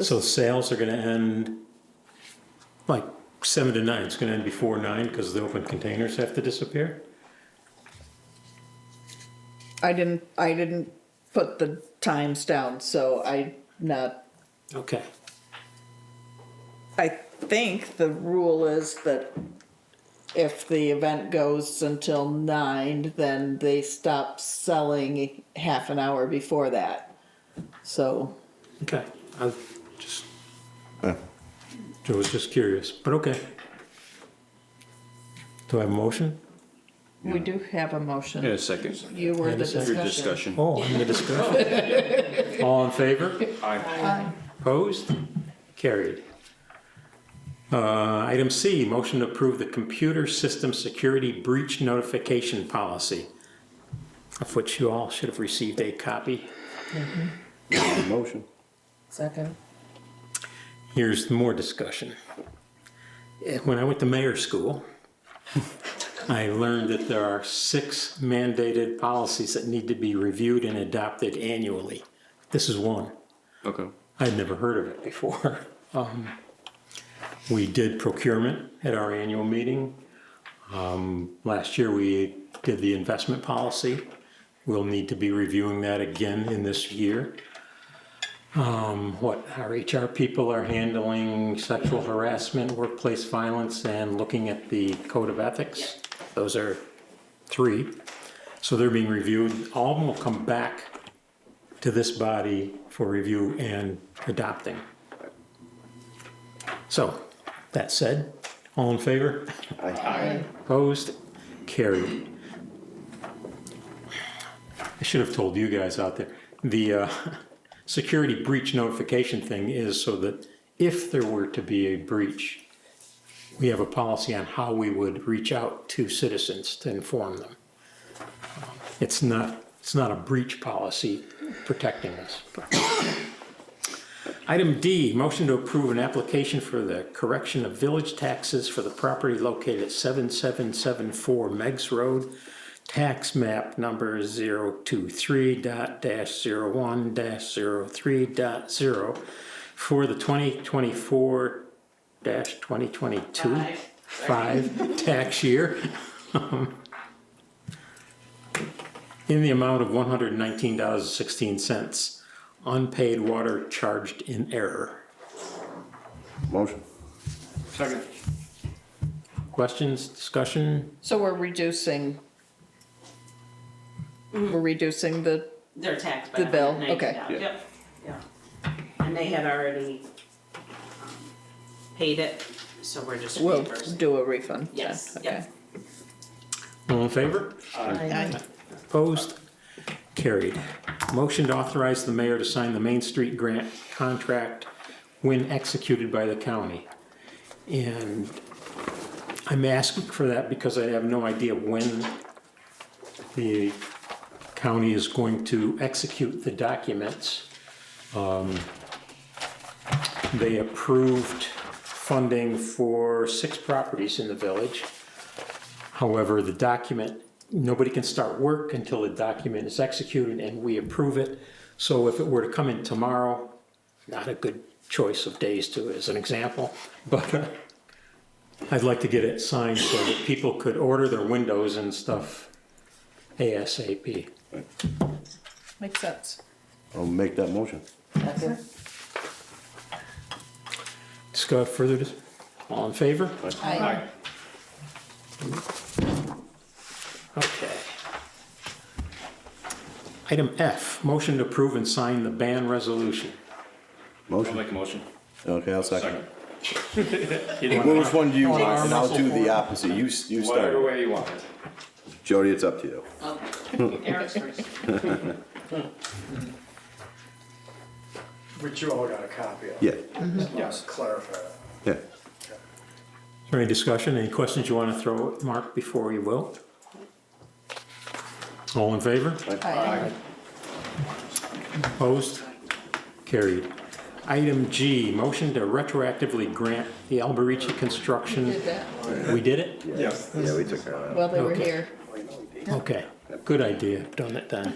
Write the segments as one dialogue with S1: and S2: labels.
S1: So sales are gonna end like seven to nine, it's gonna end before nine because the open containers have to disappear?
S2: I didn't, I didn't put the times down, so I not,
S1: Okay.
S2: I think the rule is that if the event goes until nine, then they stop selling half an hour before that. So,
S1: Okay, I was just, I was just curious, but okay. Do I have a motion?
S2: we do have a
S3: Yeah,
S2: motion.
S3: a second.
S2: You were the
S1: And a second.
S3: Your
S2: discussion.
S3: discussion.
S1: Oh, in the discussion. All in favor? Opposed? Carried. Uh, Item C, motion to approve the computer system security breach notification policy, of which you all should have received a copy.
S3: Motion.
S2: Second.
S1: Here's more discussion. Eh, When I went to mayor school, I learned that there are six mandated policies that need to be reviewed and adopted annually. This is one.
S3: Okay.
S1: I'd never heard of it before. Um, we did procurement at our annual meeting. Um, last year, we did the investment policy. We'll need to be reviewing that again in this year. Um, what our HR people are handling sexual harassment, workplace violence, and looking at the code of ethics. Those are three. So they're being reviewed. All of them will come back to this body for review and adopting. So, that said, all in favor? Opposed? Carried. I should have told you guys out there, the uh, security breach notification thing is so that if there were to be a breach, we have a policy on how we would reach out to citizens to inform them. It's not, it's not a breach policy protecting us. Item D, motion to approve an application for the correction of village taxes for the property located at 7774 Meggs Road, tax map number 023 dot dash 01 dash 03 dot 0 for the 2024 dash 2022 five tax year Um, in the amount of $119.16 unpaid water charged in error.
S3: Motion.
S1: Questions, discussion?
S2: So we're reducing, we're reducing the,
S4: They're taxed by.
S2: The bill,
S4: $190.
S2: okay.
S3: Yeah.
S4: Yep, yeah. And they had already um, paid it, so we're just
S2: we'll
S4: reimbursing.
S2: do a refund. then,
S4: Yes,
S2: okay.
S4: yeah.
S1: All in favor?
S2: Aye.
S1: Opposed? Carried. Motion to authorize the mayor to sign the Main Street grant contract when executed by the county. And I'm asking for that because I have no idea when the county is going to execute the documents. Um, They approved funding for six properties in the village. However, the document, nobody can start work until the document is executed and we approve it. So if it were to come in tomorrow, not a good choice of days to, as an example, but uh, I'd like to get it signed so that people could order their windows and stuff ASAP.
S2: Makes sense.
S3: I'll make that motion.
S1: Discuss further, dis- all in favor?
S2: Aye.
S1: Okay. Item F, motion to approve and sign the ban resolution.
S5: I'll
S3: Motion.
S5: make a motion.
S3: Okay, I'll second.
S5: Second.
S3: Well, Which one do you want?
S1: arm
S3: And I'll do
S1: wrestle for
S3: the opposite. You, s- you
S5: Whatever
S3: start.
S5: way you want.
S3: Jody, it's up to you.
S4: Okay. Eric's first.
S6: But you all got a copy of it?
S3: Yeah,
S6: Yes. Clarify that.
S3: yeah.
S1: Is there any discussion, any questions you want to throw at Mark before you vote? All in favor?
S2: Aye.
S1: Opposed? Carried. Item G, motion to retroactively grant the Alberici construction.
S2: Did that.
S1: We did it?
S3: Yes. Yeah, we took care of
S2: Well, they were
S1: Okay.
S2: here.
S1: Okay, good idea, done it then.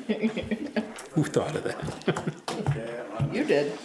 S1: Who thought of that?
S2: You did.